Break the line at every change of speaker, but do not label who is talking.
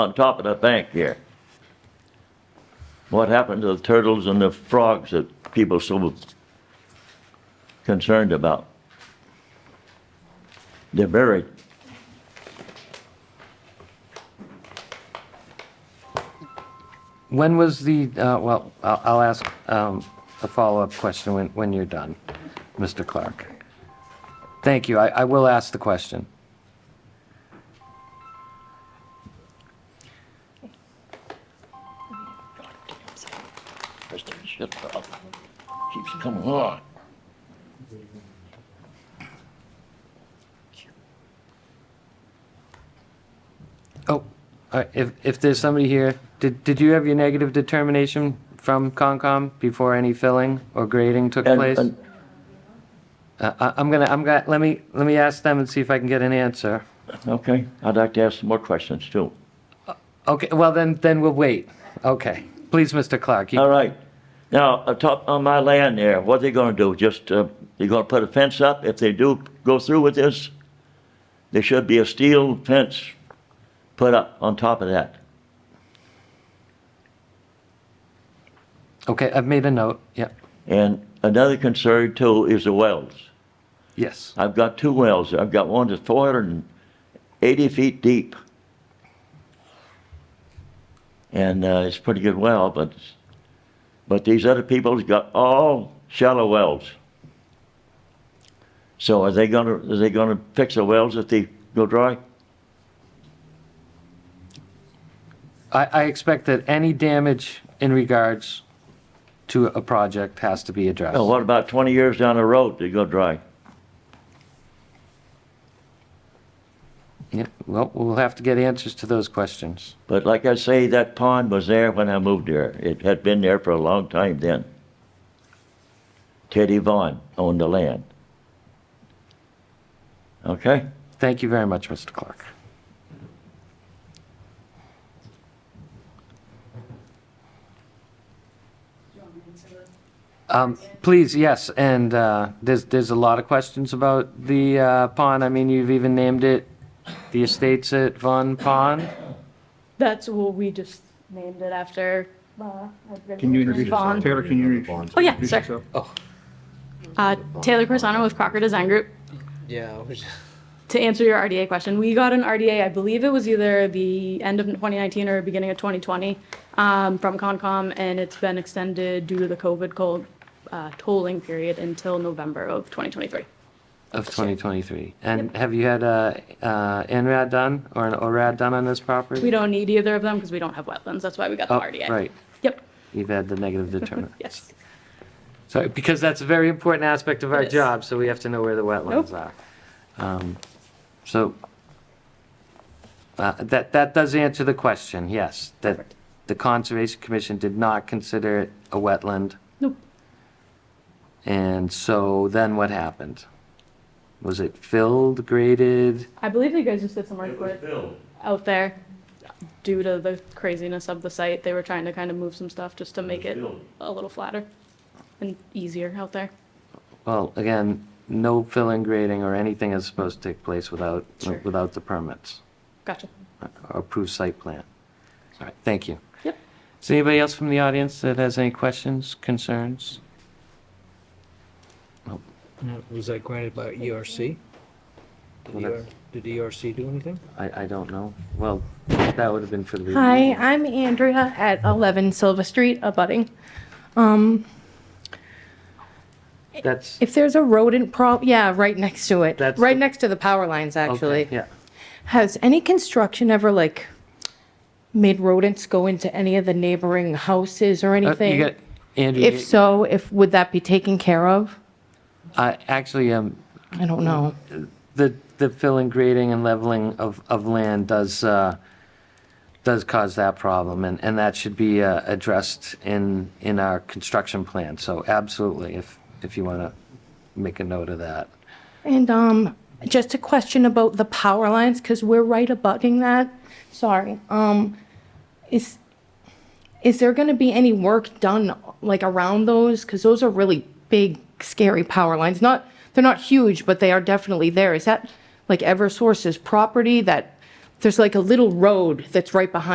on top of the bank here. What happened to the turtles and the frogs that people so concerned about? They're buried.
When was the, uh, well, I'll I'll ask um, a follow-up question when when you're done, Mr. Clark. Thank you. I I will ask the question.
That's the shit problem. Keeps coming on.
Oh, all right, if if there's somebody here, did did you have your negative determination from Concom before any filling or grading took
And-
place?
and-
Uh, I- I'm gonna, I'm gonna, let me, let me ask them and see if I can get an answer.
Okay, I'd like to ask some more questions too.
Okay, well, then, then we'll wait. Okay. Please, Mr. Clark. you-
All right. Now, atop on my land there, what are they gonna do? Just, uh, they gonna put a fence up? If they do go through with this, there should be a steel fence put up on top of that.
Okay, I've made a note. Yep,
And another concern too is the wells.
yes.
I've got two wells. I've got one that's four hundred and eighty feet deep. And, uh, it's a pretty good well, but, but these other people's got all shallow wells. So are they gonna, are they gonna fix the wells if they go dry?
I, I expect that any damage in regards to a project has to be addressed.
Now, Oh, what about twenty years down the road, they go dry?
Yeah, well, we'll have to get answers to those questions.
But like I say, that pond was there when I moved there. It had been there for a long time then. Teddy Vaughn owned the land. Okay?
Thank you very much, Mr. Clark. Um, please, yes, and, uh, there's, there's a lot of questions about the, uh, pond. I mean, you've even named it the Estates at Von Pond.
That's what we just named it after. uh,
Can you introduce
Vaughn.
yourself? Taylor, can you introduce?
Oh, yeah,
introduce
sir.
yourself?
Uh, Taylor Corsano with Crocker Design Group.
Yeah, I was-
To answer your RDA question, we got an RDA, I believe it was either the end of 2019 or beginning of 2020 um, from Concom, and it's been extended due to the COVID cold, uh, tolling period until November of 2023.
Of 2023. And have you had a, uh, NRAD done or an ORAD done on this property?
We don't need either of them because we don't have wetlands. That's why we got the
Oh,
RDA.
Right,
Yep.
you've had the negative determinant.
Yes.
So, because that's a very important aspect of our
It is.
job, so we have to know where the wetlands are. Um, So, uh, that, that does answer the question, yes, that
Perfect.
the Conservation Commission did not consider it a wetland,
Nope.
and so then what happened? Was it filled, graded?
I believe you guys just did some work with out there due to the craziness of the site. They were trying to kind of move some stuff just to make it a little flatter and easier out there.
Well, again, no filling, grading, or anything is supposed to take place without,
Sure.
without the permits,
Gotcha.
or approved site plan. All right, thank you.
Yep.
Is there anybody else from the audience that has any questions, concerns?
was that granted by E ERC? Did
Well, that's-
ER Did ERC do anything?
I, I don't know. Well, that would have been for the.
Hi, I'm Andrea at 11 Silva Street, abutting. Um,
That's,
If there's a rodent prob, yeah, right next to it,
That's
right
the-
next to the power lines,
okay,
actually.
yeah.
Has any construction ever like made rodents go into any of the neighboring houses or
Uh, you
anything?
got- Andrew,
If
you-
so, if, would that be taken care of?
I, actually, um,
I don't know.
the, the filling, grading and leveling of, of land does, uh, does cause that problem and, and that should be, uh, addressed in, in our construction plan. So absolutely, if, if you want to make a note of that.
And um, just a question about the power lines, because we're right abutting that. Sorry. Um, is, is there going to be any work done, like, around those? Because those are really big, scary power lines. Not, they're not huge, but they are definitely there. Is that, like, Eversource's property that, there's like a little road that's right behind